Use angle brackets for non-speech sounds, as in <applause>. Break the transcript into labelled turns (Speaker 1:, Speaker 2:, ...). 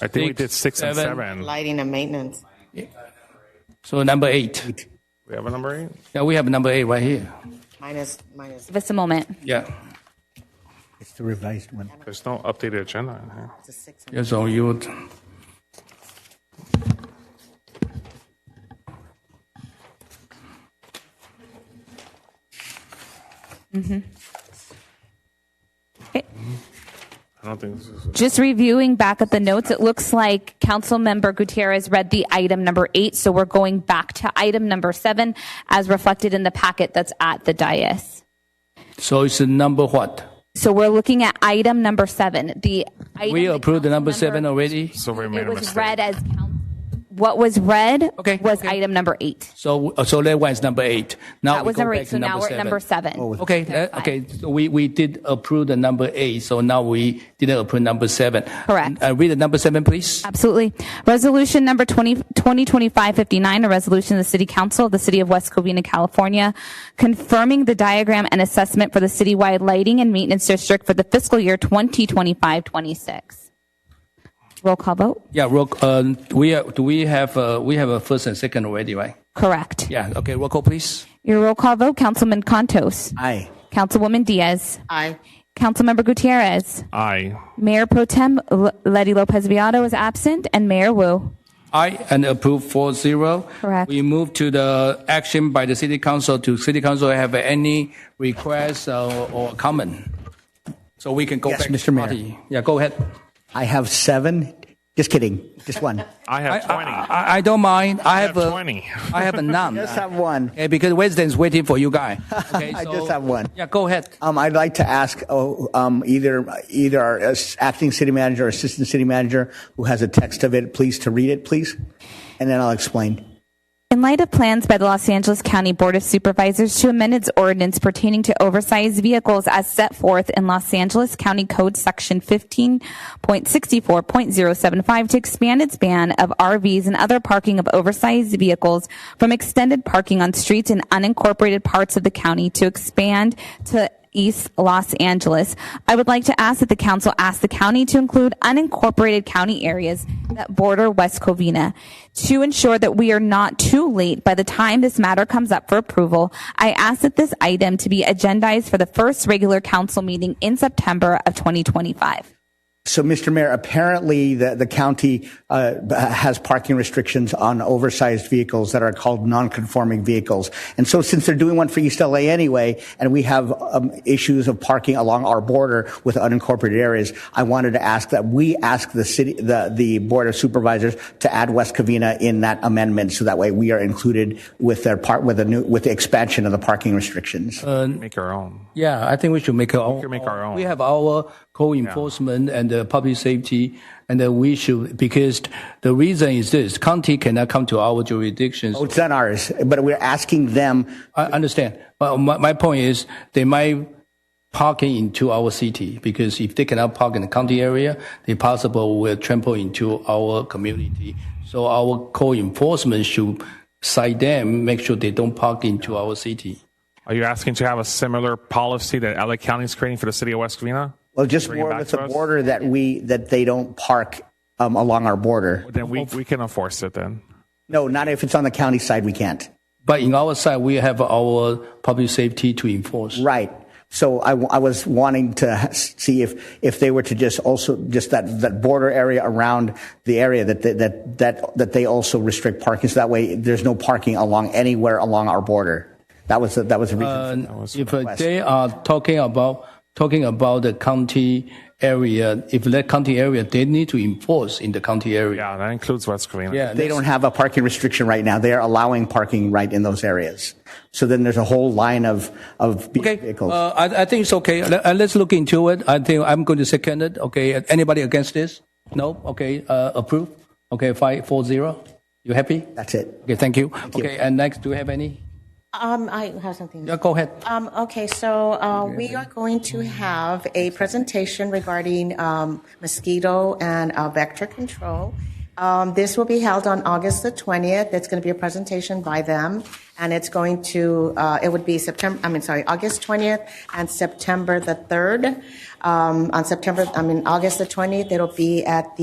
Speaker 1: I think we did six and seven.
Speaker 2: Lighting and maintenance.
Speaker 3: So number eight.
Speaker 1: We have a number eight?
Speaker 3: Yeah, we have number eight right here.
Speaker 2: Minus, minus,
Speaker 4: Give us a moment.
Speaker 3: Yeah.
Speaker 5: It's the revised one.
Speaker 1: There's no updated agenda in here.
Speaker 2: it's a six.
Speaker 3: Yeah, so you would.
Speaker 1: I don't think this is.
Speaker 4: Just reviewing back at the notes, it looks like Councilmember Gutierrez read the item number eight, so we're going back to item number seven as reflected in the packet that's at the dais.
Speaker 3: So it's a number what?
Speaker 4: So we're looking at item number seven, the. item
Speaker 3: We
Speaker 4: that
Speaker 3: approved the number
Speaker 4: Councilmember-
Speaker 3: seven already.
Speaker 1: So we made
Speaker 4: It
Speaker 1: a
Speaker 4: was
Speaker 1: mistake.
Speaker 4: read as, coun- what was read
Speaker 3: Okay,
Speaker 4: was
Speaker 3: okay.
Speaker 4: item number eight.
Speaker 3: So uh, so that one is number eight. Now
Speaker 4: That
Speaker 3: we
Speaker 4: was
Speaker 3: go
Speaker 4: number
Speaker 3: back
Speaker 4: eight,
Speaker 3: to
Speaker 4: so now we're at number seven.
Speaker 3: Okay, that- okay. so We we did approve the number eight, so now we didn't approve number seven.
Speaker 4: Correct.
Speaker 3: Uh, read the number seven, please.
Speaker 4: Absolutely. Resolution number 20 2025-59, a resolution of the City Council of the City of West Covina, California, confirming the diagram and assessment for the citywide lighting and maintenance district for the fiscal year 2025-26. Roll call vote?
Speaker 3: Yeah, roll, uh, we are, do we have uh, we have a first and second already, right?
Speaker 4: Correct.
Speaker 3: Yeah. Okay. Roll call, please.
Speaker 4: Your roll call vote, Councilman Contos.
Speaker 5: Aye.
Speaker 4: Councilwoman Diaz.
Speaker 2: Aye.
Speaker 4: Councilmember Gutierrez.
Speaker 1: Aye.
Speaker 4: Mayor Pro Tem L- Letty Lopez Viado is absent, and Mayor Wu.
Speaker 3: Aye, and approve four zero.
Speaker 4: Correct.
Speaker 3: We move to the action by the city council. To city council have any requests uh, or comment? So we can go
Speaker 5: Yes,
Speaker 3: back.
Speaker 5: Mr. Mayor.
Speaker 3: Marty. Yeah, go ahead.
Speaker 5: I have seven. Just kidding. Just one.
Speaker 1: I
Speaker 3: I,
Speaker 1: have twenty.
Speaker 3: I, I- I don't mind. I, have,
Speaker 1: have
Speaker 3: a-
Speaker 1: 20. <laughs>
Speaker 3: I have a none.
Speaker 5: <laughs> Just have one.
Speaker 3: Okay, because Weston's waiting for you
Speaker 5: <laughs>
Speaker 3: guy. Okay,
Speaker 5: I
Speaker 3: so-
Speaker 5: just have one.
Speaker 3: Yeah, go ahead.
Speaker 5: Um, I'd like to ask oh, um, either either our uh, acting city manager or assistant city manager who has a text of it, please, to read it, please, and then I'll explain.
Speaker 4: In light of plans by the Los Angeles County Board of Supervisors to amend its ordinance pertaining to oversized vehicles as set forth in Los Angeles County Code Section 15.64.075 to expand its ban of RVs and other parking of oversized vehicles from extended parking on streets in unincorporated parts of the county to expand to East Los Angeles. I would like to ask that the council ask the county to include unincorporated county areas that border West Covina. To ensure that we are not too late by the time this matter comes up for approval, I ask that this item to be agendized for the first regular council meeting in September of 2025.
Speaker 5: So, Mr. Mayor, apparently the, the county uh, has parking restrictions on oversized vehicles that are called non-conforming vehicles. And so since they're doing one for East LA anyway, and we have um, issues of parking along our border with unincorporated areas, I wanted to ask that we ask the city, the, the Board of Supervisors to add West Covina in that amendment so that way we are included with their part, with the new, with the expansion of the parking restrictions.
Speaker 1: Make our own.
Speaker 3: Yeah, I think we should make our own.
Speaker 1: can make our own.
Speaker 3: Oh, We have our co-enforcement and uh, public safety, and uh, we should because the reason is this: county cannot come to our jurisdictions.
Speaker 5: It's not ours, but we're asking them
Speaker 3: I understand, but my, my point is they might parking into our city because if they cannot park in the county area, they possible will trample into our community. So our co-enforcement should cite them, make sure they don't park into our city.
Speaker 1: Are you asking to have a similar policy that LA County is creating for the city of West Covina?
Speaker 5: Well, just
Speaker 1: Bring it
Speaker 5: more
Speaker 1: back
Speaker 5: with
Speaker 1: to
Speaker 5: the
Speaker 1: us?
Speaker 5: border that we, that they don't park um, along our border.
Speaker 1: Then we, we can enforce it then.
Speaker 5: No, not if it's on the county side, we can't.
Speaker 3: But in our side, we have our public safety to enforce.
Speaker 5: Right. So I, w- I was wanting to ha- see if, if they were to just also, just that, that border area around the area that, they- that, that, that they also restrict parking. So that way there's no parking along anywhere along our border. That was, the- that was the reason. for that.
Speaker 3: If uh, they are talking about talking about the county area, if that county area, they need to enforce in the county area.
Speaker 1: Yeah, that includes West Covina.
Speaker 3: Yeah,
Speaker 5: They don't have a parking restriction right now. They are allowing parking right in those areas. So then there's a whole line of, of
Speaker 3: Okay,
Speaker 5: vehicles.
Speaker 3: uh, I, I think it's okay. Let, uh, let's look into it. I think I'm going to second it. Okay, anybody against this? No. Okay, uh, approve. Okay, five four zero. You happy?
Speaker 5: That's it.
Speaker 3: Okay, thank you. okay, and next, do you have any?
Speaker 2: Um, I have something.
Speaker 3: Yeah, go ahead.
Speaker 2: Um, okay, so, uh, we are going to have a presentation regarding, um, mosquito and uh, vector control. Um, this will be held on August the twentieth. It's gonna be a presentation by them, and it's going to, uh, it would be September, I mean, sorry, August twentieth and September the third. Um, on September, I mean, August the twentieth, it'll be at the